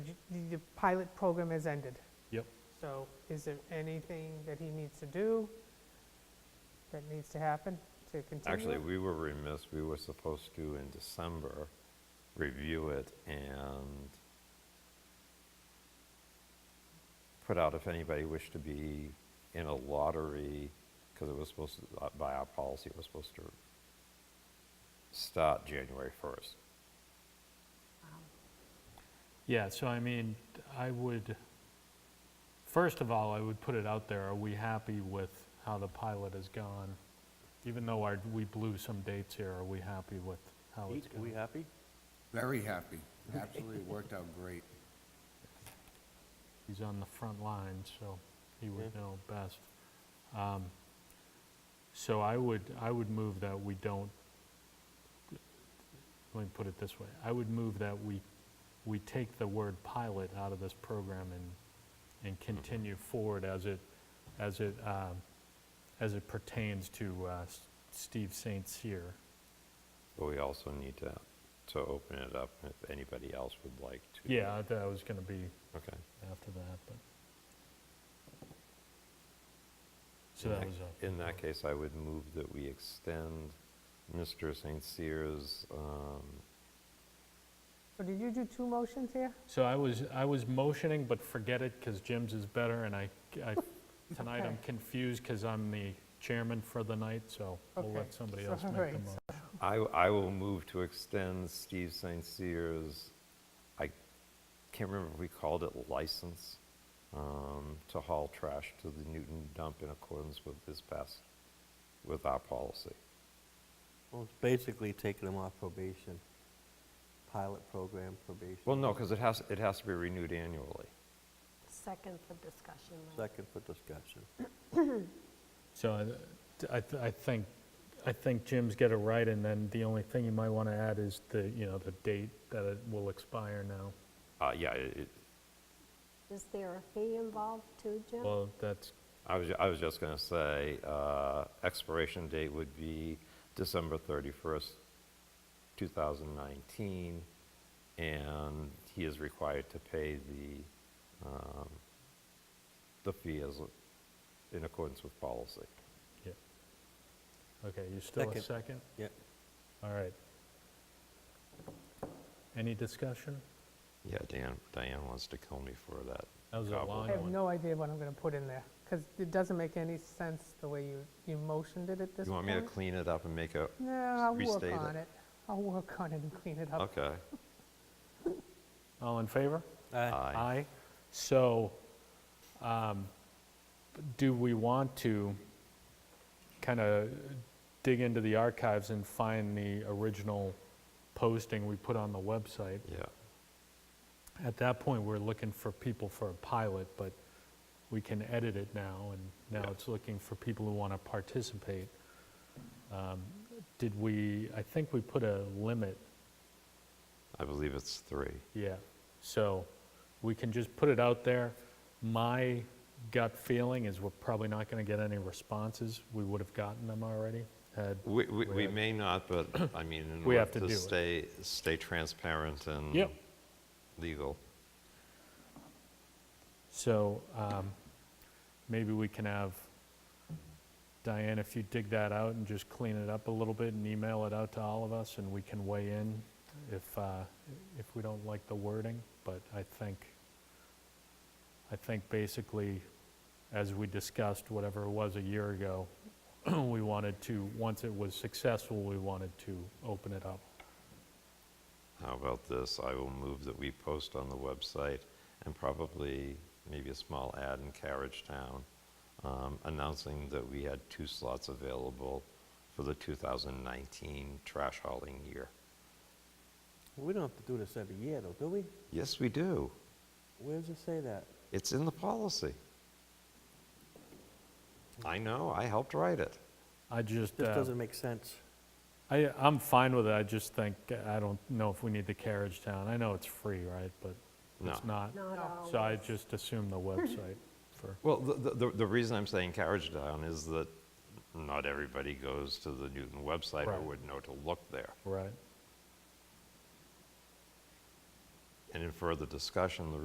the pilot program has ended. Yep. So is there anything that he needs to do that needs to happen to continue? Actually, it? we were remiss, we were supposed to in December review it and put out if anybody wished to be in a lottery, because it was supposed to, uh, by our policy, it was supposed to start January 1st. Yeah, so I mean, I would, first of all, I would put it out there, are we happy with how the pilot has gone? Even though our, we blew some dates here, are we happy with how it's Pete, are we going? happy? Very happy. Absolutely worked out great. He's on the front line, so he would know best. Um, So I would, I would move that we don't, let me put it this way, I would move that we, we take the word pilot out of this program and, and continue forward as it, as it, um, as it pertains to uh, S- Steve St. Cyr. But we also need to, to open it up if anybody else would like to. Yeah, I- that was gonna be Okay. after that, but. So In that that- was a. In that case, I would move that we extend Mr. St. Cyr's um, So did you do two motions here? So I was, I was motioning, but forget it, because Jim's is better, and I, I, tonight I'm Okay. confused, because I'm the chairman for the night, so we'll Okay, let somebody else make the sorry, motion. I, I will move to extend Steve St. Cyr's, I can't remember if we called it license, um, to haul trash to the Newton dump in accordance with this past, with our policy. Well, it's basically taking them off probation, pilot program probation. Well, no, because it has, it has to be renewed annually. Second for discussion. Mike. Second for discussion. So I- I, th- I think, I think Jim's got it right, and then the only thing you might want to add is the, you know, the date that it will expire now. Uh, yeah, it, it- Is there a fee involved too, Jim? Well, that's, I was, ju- I was just going to say, uh, expiration date would be December 31st, 2019, and he is required to pay the, um, the fee as, in accordance with policy. yeah. Okay, you still a Second. second? Yeah, All right. Any discussion? Yeah, Dan, Diane wants to kill me for that. That was a Cobble. long I have one. no idea what I'm going to put in there, because it doesn't make any sense the way you, you motioned it at this point. You want me to clean it up and make a, No, I'll work restate on it? it. I'll work on it and clean it up. okay. All in favor? Aye. Aye. So, um, do we want to kind of dig into the archives and find the original posting we put on the website? Yeah, At that point, we're looking for people for a pilot, but we can edit it now, and now Yeah. it's looking for people who want to participate. Um, Did we, I think we put a limit I believe it's three. Yeah, so we can just put it out there. My gut feeling is we're probably not going to get any responses. We would have gotten them already had, We, we, we Right. may not, but, I mean, in We order have to to do it. stay, stay transparent and Yep. legal. so um, maybe we can have, Diane, if you dig that out and just clean it up a little bit and email it out to all of us, and we can weigh in if, uh, if we don't like the wording. But I think, I think basically, as we discussed, whatever it was a year ago, we wanted to, once it was successful, we wanted to open it up. How about this? I will move that we post on the website and probably maybe a small ad in Carriage Town um, announcing that we had two slots available for the 2019 trash hauling year. We don't have to do this every year, though, do we? Yes, we do. Where does it say that? It's in the policy. I know, I helped write it. I just, This uh, doesn't make sense. I, I'm fine with it, I just think, I don't know if we need the carriage town. I know it's free, right, but it's No. not. Not So I always. just assume the website for, Well, the, the, the reason I'm saying Carriage Town is that not everybody goes to the Newton website or Right. would know to look there. right? And in further discussion, the